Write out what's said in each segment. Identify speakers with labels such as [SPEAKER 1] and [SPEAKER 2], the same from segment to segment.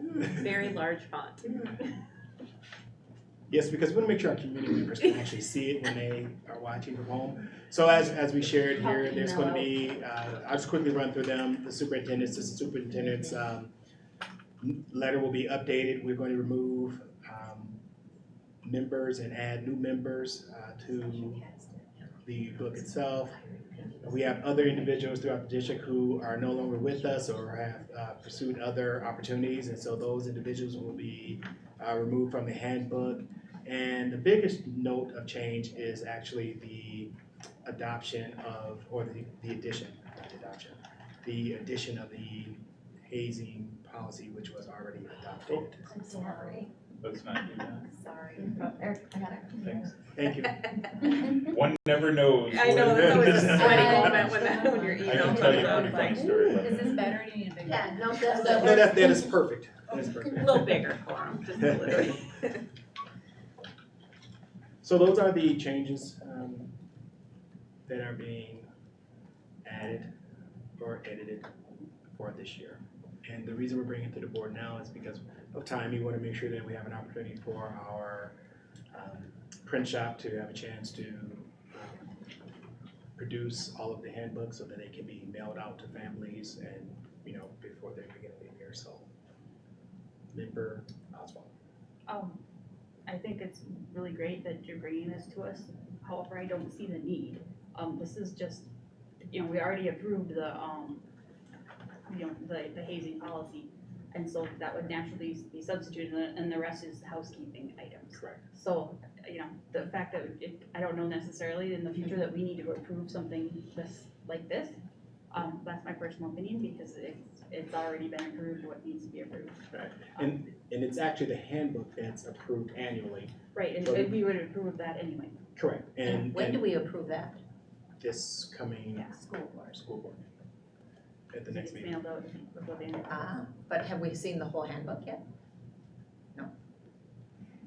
[SPEAKER 1] very large font.
[SPEAKER 2] Yes, because we want to make sure our community members can actually see it when they are watching from home. So as, as we shared here, there's going to be, uh, I'll just quickly run through them. The superintendent's, the superintendent's um, letter will be updated. We're going to remove um, members and add new members uh, to the book itself. We have other individuals throughout the district who are no longer with us or have uh, pursued other opportunities. And so those individuals will be uh, removed from the handbook. And the biggest note of change is actually the adoption of, or the, the addition, not the adoption, the addition of the hazing policy, which was already adopted.
[SPEAKER 3] I'm sorry,
[SPEAKER 4] Let's not do that.
[SPEAKER 3] sorry. Eric, I got it.
[SPEAKER 4] Thanks.
[SPEAKER 2] Thank you.
[SPEAKER 4] One never knows.
[SPEAKER 1] I know,
[SPEAKER 4] what-
[SPEAKER 1] that's always a sweaty
[SPEAKER 3] I
[SPEAKER 1] moment when that, when your
[SPEAKER 4] I
[SPEAKER 1] email
[SPEAKER 4] can
[SPEAKER 1] comes
[SPEAKER 4] tell you a
[SPEAKER 1] out,
[SPEAKER 4] pretty
[SPEAKER 1] it's
[SPEAKER 4] funny
[SPEAKER 1] like,
[SPEAKER 4] story about
[SPEAKER 5] Is
[SPEAKER 4] that.
[SPEAKER 5] this better? Do you need a bigger?
[SPEAKER 3] Yeah, no, that's,
[SPEAKER 2] No,
[SPEAKER 3] that's,
[SPEAKER 2] that, that is perfect. That is perfect.
[SPEAKER 1] a little bigger for 'em, just a little.
[SPEAKER 2] So those are the changes um, that are being added or edited for this year. And the reason we're bringing it to the board now is because of time. We want to make sure that we have an opportunity for our um, print shop to have a chance to um, produce all of the handbooks so that they can be mailed out to families and, you know, before they begin the year, so. Member Oswald.
[SPEAKER 6] Um, I think it's really great that you're bringing this to us, however, I don't see the need. Um, this is just, you know, we already approved the, um, you know, the, the hazing policy. And so that would naturally be substituted, and the- and the rest is housekeeping items.
[SPEAKER 2] Correct.
[SPEAKER 6] So, you know, the fact that it, I don't know necessarily in the future that we need to approve something this, like this. Um, that's my personal opinion, because it's, it's already been approved, what needs to be approved.
[SPEAKER 2] Right. And, and it's actually the handbook that's approved annually.
[SPEAKER 6] Right, and
[SPEAKER 2] Right.
[SPEAKER 6] and we would approve of that anyway.
[SPEAKER 2] Correct, and,
[SPEAKER 3] when do
[SPEAKER 2] and
[SPEAKER 3] we approve that?
[SPEAKER 2] this coming
[SPEAKER 6] Yeah.
[SPEAKER 3] School board.
[SPEAKER 2] school board at the next
[SPEAKER 6] It's
[SPEAKER 2] meeting.
[SPEAKER 6] mailed out before the end of the month.
[SPEAKER 3] Uh, but have we seen the whole handbook yet? No.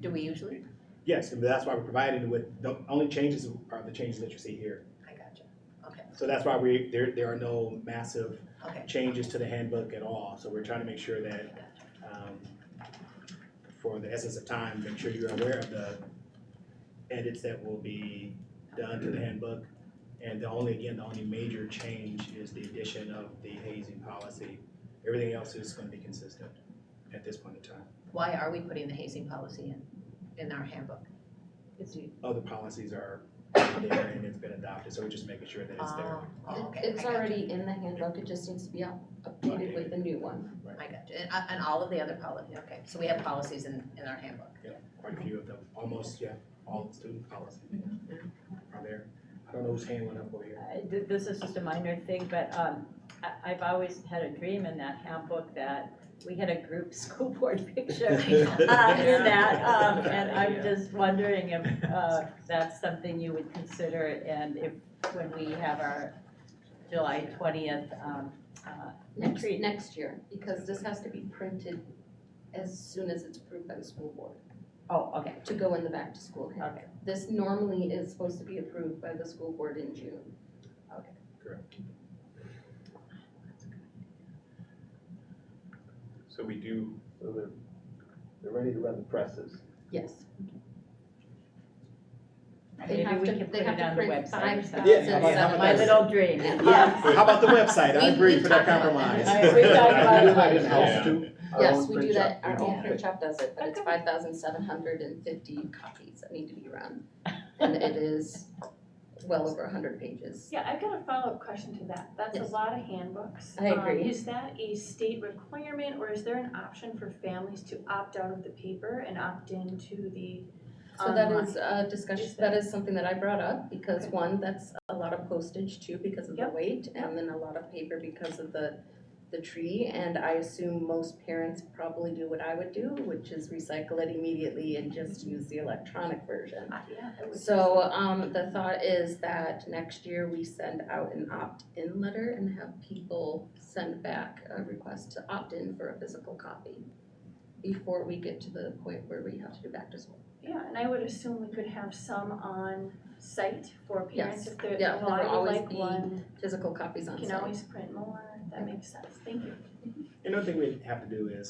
[SPEAKER 3] Do we usually?
[SPEAKER 2] Yes, and that's why we're providing with, the only changes are the changes that you see here.
[SPEAKER 3] I gotcha.
[SPEAKER 2] So that's why we, there, there are no massive
[SPEAKER 3] Okay.
[SPEAKER 2] changes to the handbook at all. So we're trying to make sure that, um, for the essence of time, make sure you're aware of the edits that will be done to the handbook. And the only, again, the only major change is the addition of the hazing policy. Everything else is gonna be consistent at this point in time.
[SPEAKER 3] Why are we putting the hazing policy in, in our handbook?
[SPEAKER 6] It's due.
[SPEAKER 2] Other policies are there and it's been adopted, so we're just making sure that it's there.
[SPEAKER 3] Oh, oh, okay.
[SPEAKER 5] It's
[SPEAKER 3] I gotcha.
[SPEAKER 5] already in the handbook, it just needs to be up- updated with the new one.
[SPEAKER 3] I gotcha. And, uh, and all of the other policies, okay. So we have policies in, in our handbook.
[SPEAKER 2] Quite a few of them, almost, yeah, all student policies are there. I don't know whose hand went up over here.
[SPEAKER 7] I- th- This is just a minor thing, but um, I- I've always had a dream in that handbook that we had a group school board picture uh, in that, um, and I'm just wondering if uh, that's something you would consider, and if, when we have our July 20th um, uh,
[SPEAKER 5] Next,
[SPEAKER 7] Agreed.
[SPEAKER 5] next year, because this has to be printed as soon as it's approved by the school board
[SPEAKER 7] Oh, okay,
[SPEAKER 5] to go in the back to school handbook.
[SPEAKER 7] okay.
[SPEAKER 5] This normally is supposed to be approved by the school board in June.
[SPEAKER 4] So we do,
[SPEAKER 8] So they're, they're ready to run the presses.
[SPEAKER 5] Yes. They
[SPEAKER 7] Maybe
[SPEAKER 5] have
[SPEAKER 7] we
[SPEAKER 5] to-
[SPEAKER 7] can put
[SPEAKER 5] they
[SPEAKER 7] it
[SPEAKER 5] have to
[SPEAKER 7] on the
[SPEAKER 5] print
[SPEAKER 7] website or something.
[SPEAKER 2] Yeah, how about- how
[SPEAKER 5] Seven
[SPEAKER 2] about
[SPEAKER 7] My
[SPEAKER 2] that?
[SPEAKER 7] little dream.
[SPEAKER 5] Yeah.
[SPEAKER 2] How about the website? I
[SPEAKER 5] We-
[SPEAKER 2] agree
[SPEAKER 5] we
[SPEAKER 2] for that
[SPEAKER 5] talked about
[SPEAKER 2] compromise.
[SPEAKER 7] that. All right, we talked about
[SPEAKER 8] Do that
[SPEAKER 7] it.
[SPEAKER 8] in-house too? Our
[SPEAKER 5] Yes,
[SPEAKER 8] own
[SPEAKER 5] we
[SPEAKER 8] print
[SPEAKER 5] do that,
[SPEAKER 8] shop?
[SPEAKER 5] our own
[SPEAKER 8] Yeah.
[SPEAKER 5] print shop does it, but it's five thousand seven hundred and fifty copies that need to be run. And it is well over hundred pages.
[SPEAKER 9] Yeah, I've got a follow-up question to that. That's a
[SPEAKER 5] Yes.
[SPEAKER 9] lot of handbooks.
[SPEAKER 5] I
[SPEAKER 9] Um,
[SPEAKER 5] agree.
[SPEAKER 9] Is that a state requirement or is there an option for families to opt out of the paper and opt into the
[SPEAKER 5] So that
[SPEAKER 9] online?
[SPEAKER 5] is a discussion,
[SPEAKER 9] Is
[SPEAKER 5] that
[SPEAKER 9] that-
[SPEAKER 5] is something that I brought up, because
[SPEAKER 9] Okay.
[SPEAKER 5] one, that's a lot of postage too, because of the
[SPEAKER 9] Yep.
[SPEAKER 5] weight, and then a lot of paper because of the, the tree, and I assume most parents probably do what I would do, which is recycle it immediately and
[SPEAKER 9] Mm-hmm.
[SPEAKER 5] just use the electronic version.
[SPEAKER 9] Uh, Yeah, I would.
[SPEAKER 5] So, um, the thought is that next year we send out an opt-in letter and have people send back a request to opt in for a physical copy before we get to the point where we have to do back to school.
[SPEAKER 9] Yeah, and I would assume we could have some on site for parents
[SPEAKER 5] Yes.
[SPEAKER 9] if they're,
[SPEAKER 5] Yeah,
[SPEAKER 9] well, I
[SPEAKER 5] there will
[SPEAKER 9] would
[SPEAKER 5] always
[SPEAKER 9] like
[SPEAKER 5] be
[SPEAKER 9] one,
[SPEAKER 5] Physical copies
[SPEAKER 9] you
[SPEAKER 5] on
[SPEAKER 9] can
[SPEAKER 5] site.
[SPEAKER 9] always print more, that makes sense, thank you.
[SPEAKER 2] Another thing we have to do is